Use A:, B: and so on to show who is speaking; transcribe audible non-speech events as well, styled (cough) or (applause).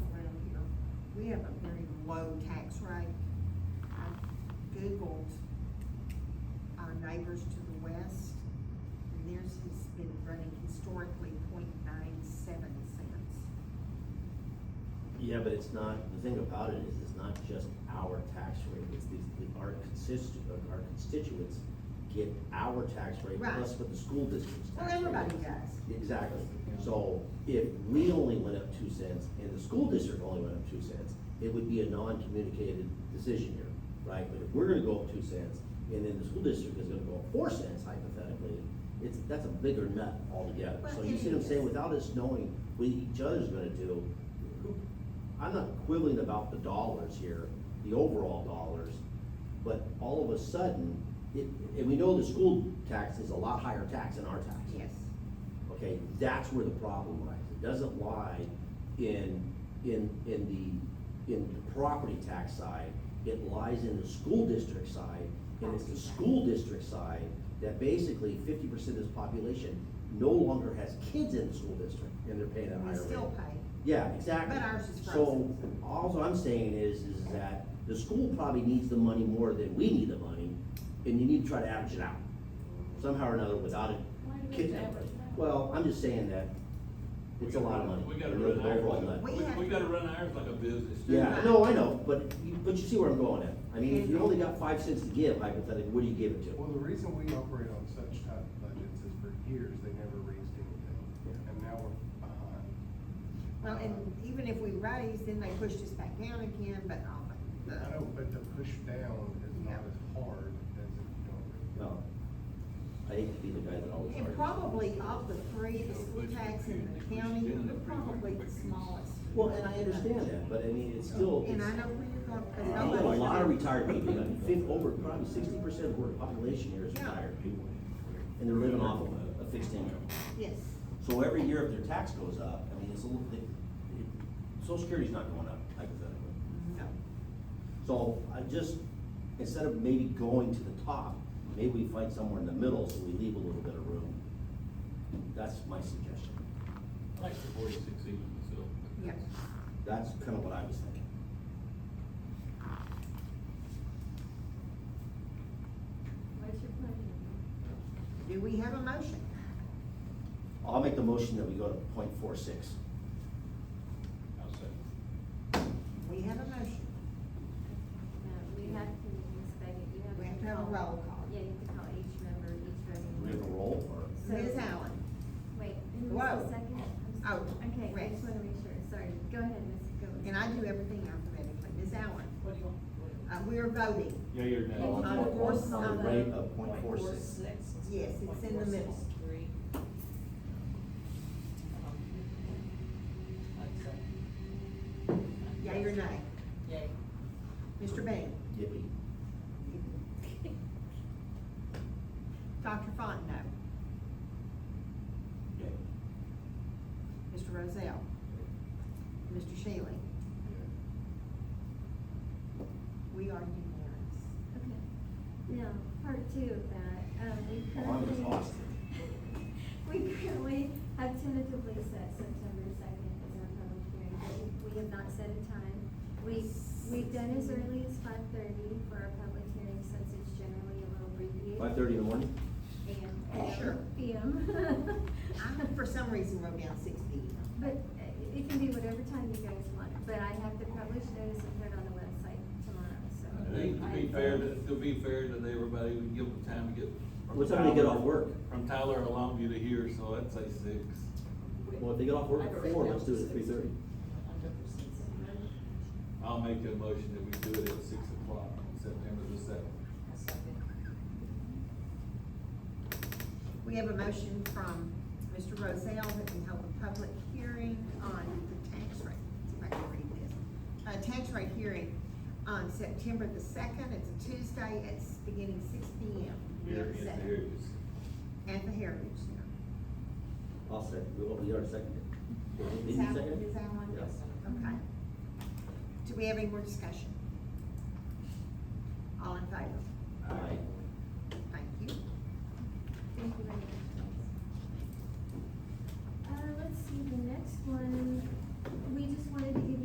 A: we have a very low tax rate. I Googled our neighbors to the west, and theirs has been running historically 0.97 cents.
B: Yeah, but it's not, the thing about it is, it's not just our tax rate, it's these, the- our consist, our constituents get our tax rate
A: Right.
B: plus what the school district's
A: Well,
B: tax rate
A: everybody
B: is.
A: does.
B: Exactly, so if we only went up two cents and the school district only went up two cents, it would be a non-communicated decision here, right? But if we're gonna go up two cents, and then the school district is gonna go up four cents hypothetically, it's, that's a bigger nut altogether.
A: Well,
B: So you
A: it
B: see what I'm saying,
A: is.
B: without us knowing what each other's gonna do, who- I'm not quibbling about the dollars here, the overall dollars, but all of a sudden, it, and we know the school tax is a lot higher tax than our tax.
A: Yes,
B: Okay, that's where the problem lies. It doesn't lie in, in, in the, in the property tax side. It lies in the school district side, and it's the school district side that basically fifty percent of this population no longer has kids in the school district, and they're paying a
A: we
B: higher rate.
A: still pay.
B: Yeah, exactly.
A: But ours is
B: So,
A: frozen.
B: alls I'm saying is, is that the school probably needs the money more than we need the money, and you need to try to average it out, somehow or another, without it.
C: Why do we
B: kick-
C: have to average it out?
B: Well, I'm just saying that it's a lot of money.
D: We gotta
B: and
D: run
B: the overall
D: ours, like-
B: nut.
A: We have-
D: we, we gotta run ours like a business.
B: Yeah, no, I know, but, you- but you see where I'm going at. I mean, if you only got five cents to give, hypothetically, what do you give it
E: Well,
B: to?
E: the reason we operate on such tight budgets is for years, they never raised anything,
B: Yeah.
E: and now we're behind.
A: Well, and even if we raise, then they push us back down again, but, um, the.
E: I know, but the push down is
A: Yeah.
E: not as hard as if you don't.
B: Well, I hate to be the guy that always
A: And
B: argues.
A: probably of the three, the school tax and the county, we're probably the smallest.
B: Well, and I understand that, but I mean, it's still,
A: And
B: it's-
A: I know where you're going,
B: I
A: because
B: know a
A: nobody's.
B: lot of retired people, I mean, fif- over, probably sixty percent of the population here is retired people. And they're living off of a- a fixed income.
A: Yes,
B: So every year if their tax goes up, I mean, it's a little, it, it, social security's not going up hypothetically.
A: no,
B: So I just, instead of maybe going to the top, maybe we find somewhere in the middle so we leave a little bit of room. That's my suggestion.
D: I Like the forty-six even, so.
A: yeah.
B: That's kind of what I was thinking.
C: What's your pleasure?
A: Do we have a motion?
B: I'll make the motion that we go to point four six.
D: I'll say.
A: We have a motion.
F: No, we have to, Ms. Baggett, you have.
A: We have to have a roll call.
F: Yeah, you have to call each member, each voting.
B: Do we have a
F: member.
B: roll or?
F: So-
A: Ms. Allen,
F: Wait, who
A: Whoa.
F: was the second? I'm
A: Oh,
F: s- Okay, I
A: Rex.
F: just wanna make sure, sorry, go ahead, Ms. Gillis.
A: and I do
F: (laughs)
A: everything alphabetically, Ms. Allen,
C: What do you want?
A: uh, we are voting,
D: Yeah, you're
F: Oh,
B: On
A: On
B: the
A: the four-
B: on the rate of point four
C: Point
B: six.
A: Yes, it's in the middle.
C: Three.
A: yea or nay?
C: Yay.
A: Mr. Bean?
B: Yippee.
A: Dr. Font, no.
B: Yay.
A: Mr. Rozell? Mr. Shealy? We are unanimous.
F: Okay. Now, part two of that, um, we
B: Oh, I'm
F: currently.
B: exhausted.
F: (laughs) We currently have tentatively set September second as our public hearing, but we- we have not set a time. We, we've done as early as five thirty for our public hearing since it's generally a little um, abbreviated.
B: Five thirty in the morning?
F: AM.
A: Sure. (laughs)
F: PM.
A: I,
F: (laughs)
A: for some reason, wrote down six P M.
F: But uh, it- it can be whatever time you guys want, but I have to publish notice and put it on the website tomorrow, so.
D: To be- to be fair, to to be fair to everybody, we give them time to get. from
B: What time do they get
D: Tyler-
B: off work?
D: From Tyler or Longview to here, so I'd say six.
B: Well, if they get off work at four, let's do it at three thirty.
D: I'll make a motion that we do it at six o'clock on September the seventh.
A: We have a motion from Mr. Rozell that we hold a public hearing on the tax rate. See if I can read this. Uh, tax rate hearing on September the second, it's a Tuesday, it's beginning six P M.
D: Here is the areas.
A: At the Heritage Center.
B: I'll second, well, we are seconded. Did
A: Is
B: you
A: that-
B: second it?
A: is that one?
B: Yeah.
A: Okay. Do we have any more discussion?
F: Uh,